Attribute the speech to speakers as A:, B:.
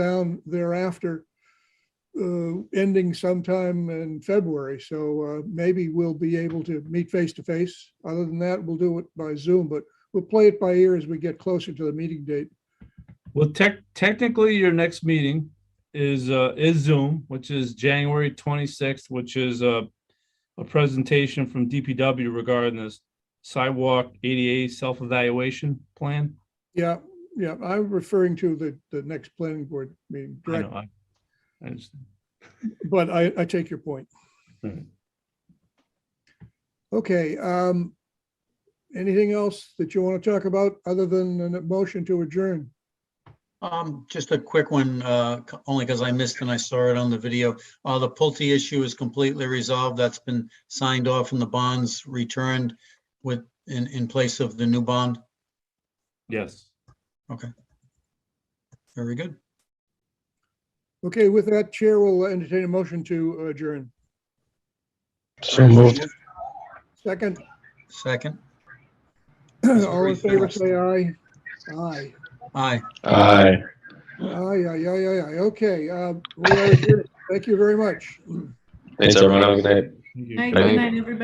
A: down thereafter, uh, ending sometime in February. So uh, maybe we'll be able to meet face to face. Other than that, we'll do it by Zoom, but we'll play it by ear as we get closer to the meeting date.
B: Well, tech, technically, your next meeting is, uh, is Zoom, which is January twenty-sixth, which is a, a presentation from DPW regarding this sidewalk ADA self-evaluation plan.
A: Yeah, yeah, I'm referring to the, the next planning board meeting,
B: I
A: direct-
B: know, I- I understand.
A: but I, I take your point.
B: Right.
A: Okay, um, anything else that you want to talk about other than a motion to adjourn?
C: Um, just a quick one, uh, c- only because I missed and I saw it on the video. Uh, the Pulte issue is completely resolved. That's been signed off and the bonds returned with, in, in place of the new bond.
B: Yes.
C: Very good.
A: Okay, with that, Chair will entertain a motion to adjourn.
D: So moved.
A: Second,
C: Second.
A: all in favor, say aye. Aye,
C: Aye.
D: Aye.
A: aye, aye, aye, aye, aye. Okay, uh, we are adjourned. Thank you very much.
D: Thanks, everyone. Have a good night.
B: Thank you.
E: Night,
D: Thank
E: good
D: you.
E: night, everybody.